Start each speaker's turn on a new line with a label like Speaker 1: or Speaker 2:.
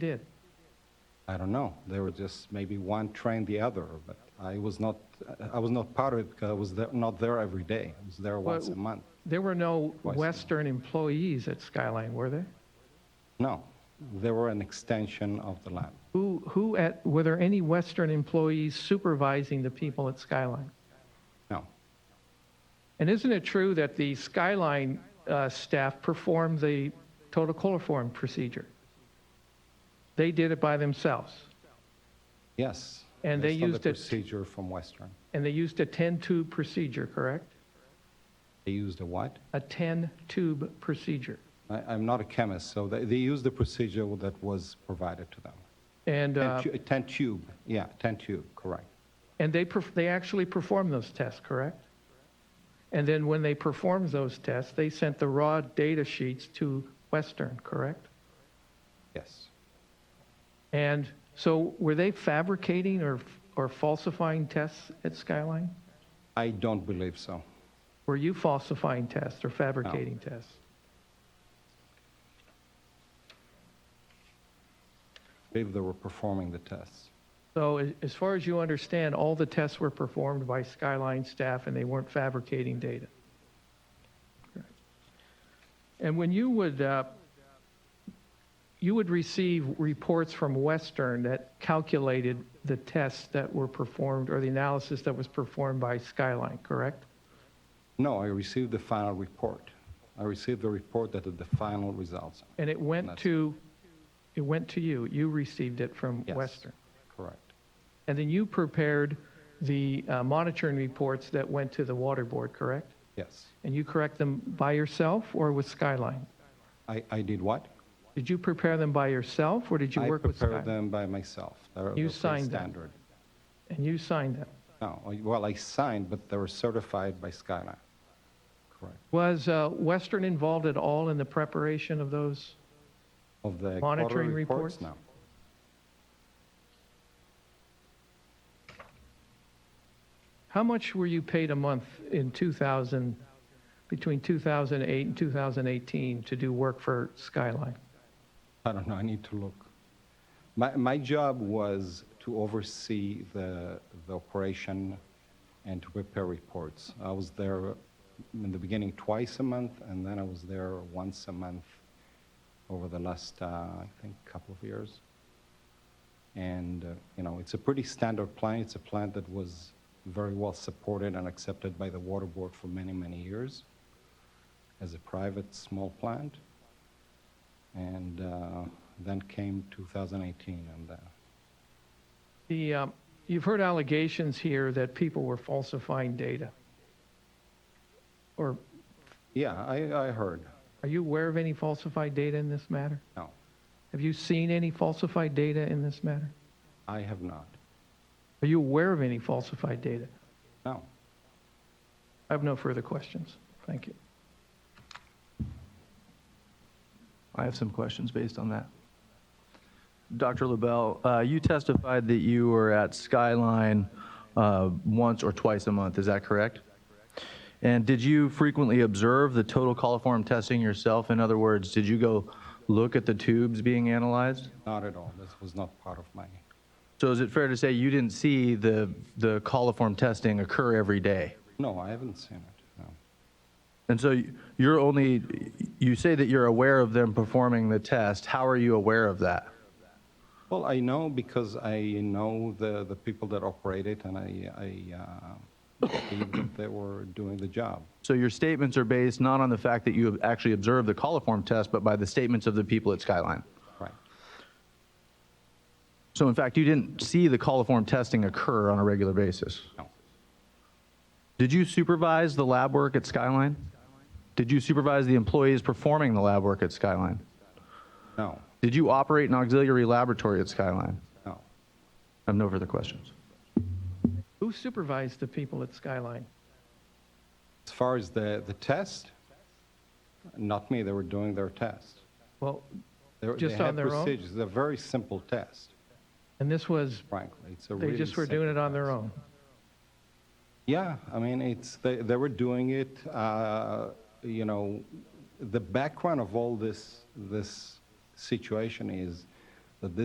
Speaker 1: did.
Speaker 2: I don't know. There were just maybe one trained the other, but I was not, I was not part of it because I was there, not there every day. I was there once a month.
Speaker 1: There were no
Speaker 2: Twice.
Speaker 1: Western employees at Skyline, were there?
Speaker 2: No, they were an extension of the lab.
Speaker 1: Who, who at, were there any Western employees supervising the people at Skyline?
Speaker 2: No,
Speaker 1: And isn't it true that the Skyline uh, staff performed the total coliform procedure? They did it by themselves,
Speaker 2: yes.
Speaker 1: And they
Speaker 2: based on
Speaker 1: used
Speaker 2: the
Speaker 1: it-
Speaker 2: procedure from Western.
Speaker 1: and they used a 10-tube procedure, correct?
Speaker 2: They used a what?
Speaker 1: A 10-tube procedure.
Speaker 2: I, I'm not a chemist, so they, they used the procedure that was provided to them.
Speaker 1: And,
Speaker 2: Ten
Speaker 1: uh,
Speaker 2: tu- ten tube, yeah, ten tube, correct.
Speaker 1: and they, perf- they actually performed those tests, correct? And then when they performed those tests, they sent the raw data sheets to Western, correct?
Speaker 2: Yes.
Speaker 1: And so were they fabricating or, or falsifying tests at Skyline?
Speaker 2: I don't believe so.
Speaker 1: Were you falsifying tests or fabricating tests?
Speaker 2: I believe they were performing the tests.
Speaker 1: So a- as far as you understand, all the tests were performed by Skyline staff and they weren't fabricating data. And when you would, uh, you would receive reports from Western that calculated the tests that were performed or the analysis that was performed by Skyline, correct?
Speaker 2: No, I received the final report. I received the report that had the final results.
Speaker 1: And it went
Speaker 2: That's-
Speaker 1: to, it went to you. You received it from
Speaker 2: Yes.
Speaker 1: Western.
Speaker 2: Correct.
Speaker 1: And then you prepared the uh, monitoring reports that went to the water board, correct?
Speaker 2: Yes.
Speaker 1: And you correct them by yourself or with Skyline?
Speaker 2: I, I did what?
Speaker 1: Did you prepare them by yourself or did you work with
Speaker 2: I prepared
Speaker 1: Skyline?
Speaker 2: them by myself. They're- they're
Speaker 1: You
Speaker 2: pretty
Speaker 1: signed them.
Speaker 2: standard.
Speaker 1: And you signed them?
Speaker 2: No, I- well, I signed, but they were certified by Skyline. Correct.
Speaker 1: Was uh, Western involved at all in the preparation of those?
Speaker 2: Of the
Speaker 1: Monitoring
Speaker 2: quarterly reports?
Speaker 1: reports?
Speaker 2: No.
Speaker 1: How much were you paid a month in 2000, between 2008 and 2018 to do work for Skyline?
Speaker 2: I don't know, I need to look. My, my job was to oversee the, the operation and to prepare reports. I was there in the beginning twice a month, and then I was there once a month over the last, uh, I think, couple of years. And, uh, you know, it's a pretty standard plan. It's a plan that was very well supported and accepted by the water board for many, many years as a private small plant. And uh, then came 2018, and uh,
Speaker 1: The, um, you've heard allegations here that people were falsifying data. Or
Speaker 2: yeah, I, I heard.
Speaker 1: are you aware of any falsified data in this matter?
Speaker 2: No,
Speaker 1: Have you seen any falsified data in this matter?
Speaker 2: I have not.
Speaker 1: Are you aware of any falsified data?
Speaker 2: No.
Speaker 1: I have no further questions. Thank you.
Speaker 3: I have some questions based on that. Dr. LaBelle, uh, you testified that you were at Skyline uh, once or twice a month, is that correct? And did you frequently observe the total coliform testing yourself? In other words, did you go look at the tubes being analyzed?
Speaker 2: Not at all. This was not part of my.
Speaker 3: So is it fair to say you didn't see the, the coliform testing occur every day?
Speaker 2: No, I haven't seen it. No.
Speaker 3: And so you- you're only, you say that you're aware of them performing the test. How are you aware of that?
Speaker 2: Well, I know because I know the, the people that operate it, and I, I uh, believe that they were doing the job.
Speaker 3: So your statements are based not on the fact that you have actually observed the coliform test, but by the statements of the people at Skyline.
Speaker 2: Right.
Speaker 3: So in fact, you didn't see the coliform testing occur on a regular basis.
Speaker 2: No.
Speaker 3: Did you supervise the lab work at Skyline? Did you supervise the employees performing the lab work at Skyline?
Speaker 2: No.
Speaker 3: Did you operate an auxiliary laboratory at Skyline?
Speaker 2: No.
Speaker 3: I have no further questions.
Speaker 1: Who supervised the people at Skyline?
Speaker 2: As far as the, the test, not me. They were doing their test.
Speaker 1: Well,
Speaker 2: They, were-
Speaker 1: Just
Speaker 2: they
Speaker 1: on
Speaker 2: had
Speaker 1: their own?
Speaker 2: procedures. They're very simple test,
Speaker 1: and this was,
Speaker 2: frankly. It's a
Speaker 1: they
Speaker 2: really
Speaker 1: just were doing it
Speaker 2: simple
Speaker 1: on their
Speaker 2: test.
Speaker 1: own.
Speaker 2: Yeah, I mean, it's, they, they were doing it, uh, you know, the background of all this, this situation is